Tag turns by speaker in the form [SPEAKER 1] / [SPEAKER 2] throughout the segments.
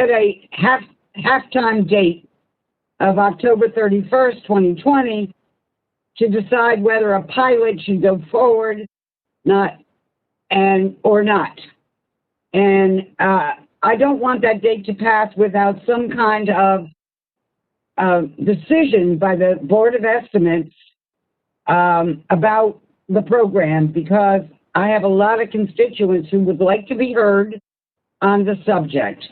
[SPEAKER 1] set a half, halftime date of October 31st, 2020, to decide whether a pilot should go forward, not, and, or not. And, uh, I don't want that date to pass without some kind of, uh, decision by the Board of Estimates, um, about the program because I have a lot of constituents who would like to be heard on the subject.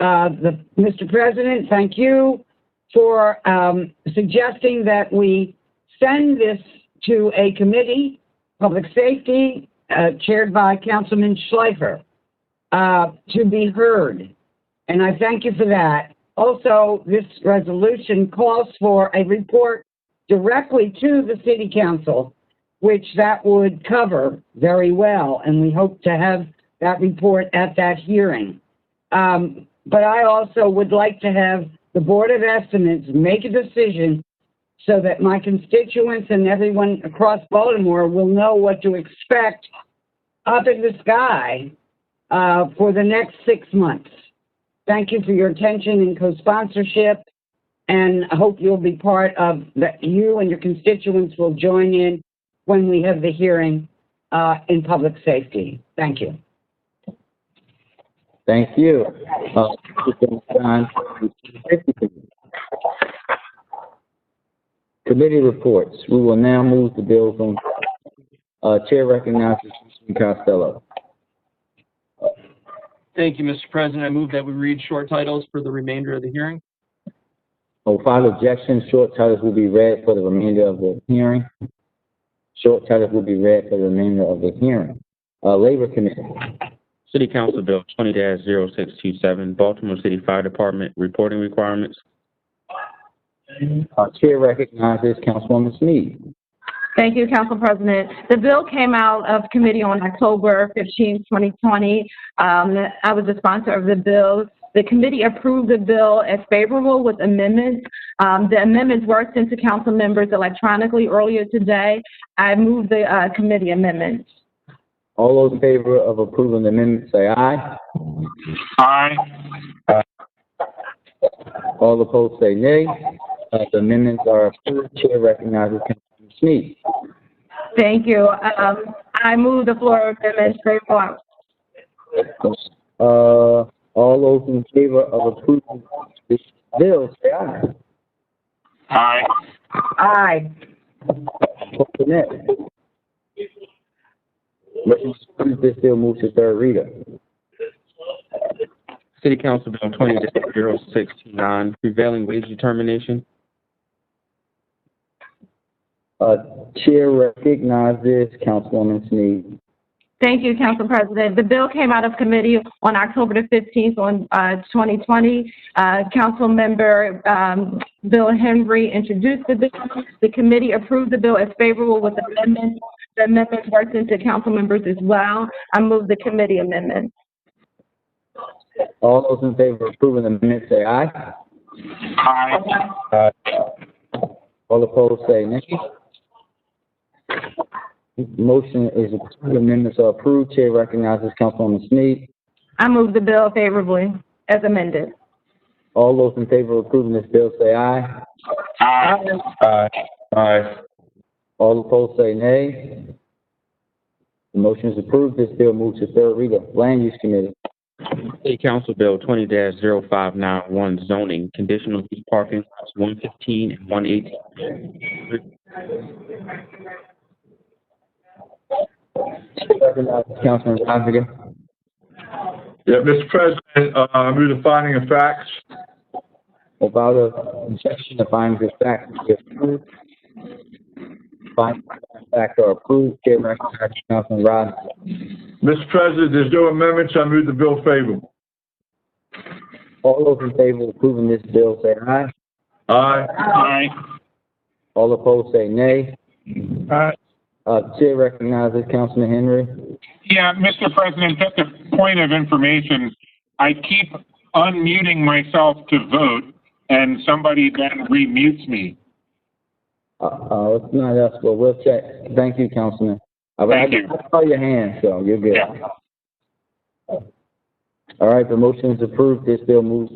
[SPEAKER 1] Uh, the, Mr. President, thank you for um, suggesting that we send this to a committee, Public Safety, uh, chaired by Councilman Schleifer, uh, to be heard. And I thank you for that. Also, this resolution calls for a report directly to the city council, which that would cover very well, and we hope to have that report at that hearing. Um, but I also would like to have the Board of Estimates make a decision so that my constituents and everyone across Baltimore will know what to expect up in the sky uh, for the next six months. Thank you for your attention and co-sponsorship, and I hope you'll be part of that. You and your constituents will join in when we have the hearing uh, in public safety. Thank you.
[SPEAKER 2] Thank you. Uh, Mr. Jones-Stein, Safety Committee. Committee reports. We will now move to bills on, uh, Chair recognizes Commissioner Costello.
[SPEAKER 3] Thank you, Mr. President. I move that we read short titles for the remainder of the hearing.
[SPEAKER 2] On five objections, short titles will be read for the remainder of the hearing. Short titles will be read for the remainder of the hearing. Uh, Labor Committee.
[SPEAKER 4] City Council Bill twenty 627 Baltimore City Fire Department reporting requirements.
[SPEAKER 2] Uh, Chair recognizes Councilwoman Sneed.
[SPEAKER 5] Thank you, Council President. The bill came out of committee on October 15, 2020. Um, I was the sponsor of the bill. The committee approved the bill as favorable with amendments. Um, The amendments were sent to council members electronically earlier today. I move the uh, committee amendments.
[SPEAKER 2] All those in favor of approving the amendment, say aye.
[SPEAKER 6] Aye.
[SPEAKER 2] All opposed, say nay. Uh, the amendments are approved. Chair recognizes Councilwoman Snead.
[SPEAKER 5] Thank you. Um, I move the floor amendments favorable.
[SPEAKER 2] Uh, all those in favor of approving this bill, say aye.
[SPEAKER 6] Aye.
[SPEAKER 1] Aye.
[SPEAKER 2] Opposed, say nay. Motion to approve this bill moves to third reader.
[SPEAKER 4] City Council Bill twenty 629 prevailing wage determination.
[SPEAKER 2] Uh, Chair recognizes Councilwoman Snead.
[SPEAKER 5] Thank you, Council President. The bill came out of committee on October the 15th on uh, 2020. Uh, Councilmember um, Bill Henry introduced the bill. The committee approved the bill as favorable with amendments. The amendments were sent to council members as well. I move the committee amendment.
[SPEAKER 2] All those in favor of approving the amendment, say aye.
[SPEAKER 6] Aye.
[SPEAKER 2] All opposed, say nay. Motion is approved, amendments are approved. Chair recognizes Councilwoman Snead.
[SPEAKER 5] I move the bill favorably as amended.
[SPEAKER 2] All those in favor of approving this bill, say aye.
[SPEAKER 6] Aye.
[SPEAKER 4] Aye. Aye.
[SPEAKER 2] All opposed, say nay. The motion is approved, this bill moves to third reader. Land Use Committee.
[SPEAKER 4] City Council Bill twenty 591 zoning, conditional use parking lots one fifteen and one eighteen.
[SPEAKER 2] Chair recognizes Councilman Costigan.
[SPEAKER 6] Yeah, Mr. President, uh, I move the finding of facts.
[SPEAKER 2] Without objection, the findings of fact will be approved. Findings of fact are approved. Chair recognizes Councilman Robinson.
[SPEAKER 6] Mr. President, there's no amendments. I move the bill favorable.
[SPEAKER 2] All those in favor of approving this bill, say aye.
[SPEAKER 6] Aye. Aye.
[SPEAKER 2] All opposed, say nay.
[SPEAKER 6] Aye.
[SPEAKER 2] Uh, Chair recognizes Councilman Henry.
[SPEAKER 7] Yeah, Mr. President, just a point of information. I keep unmuting myself to vote, and somebody then remutes me.
[SPEAKER 2] Uh, uh, it's not us, but we'll check. Thank you, Councilman. All right,
[SPEAKER 7] Thank you.
[SPEAKER 2] I saw your hand, so you're good.
[SPEAKER 7] Yeah.
[SPEAKER 2] All right, the motion is approved. This bill moves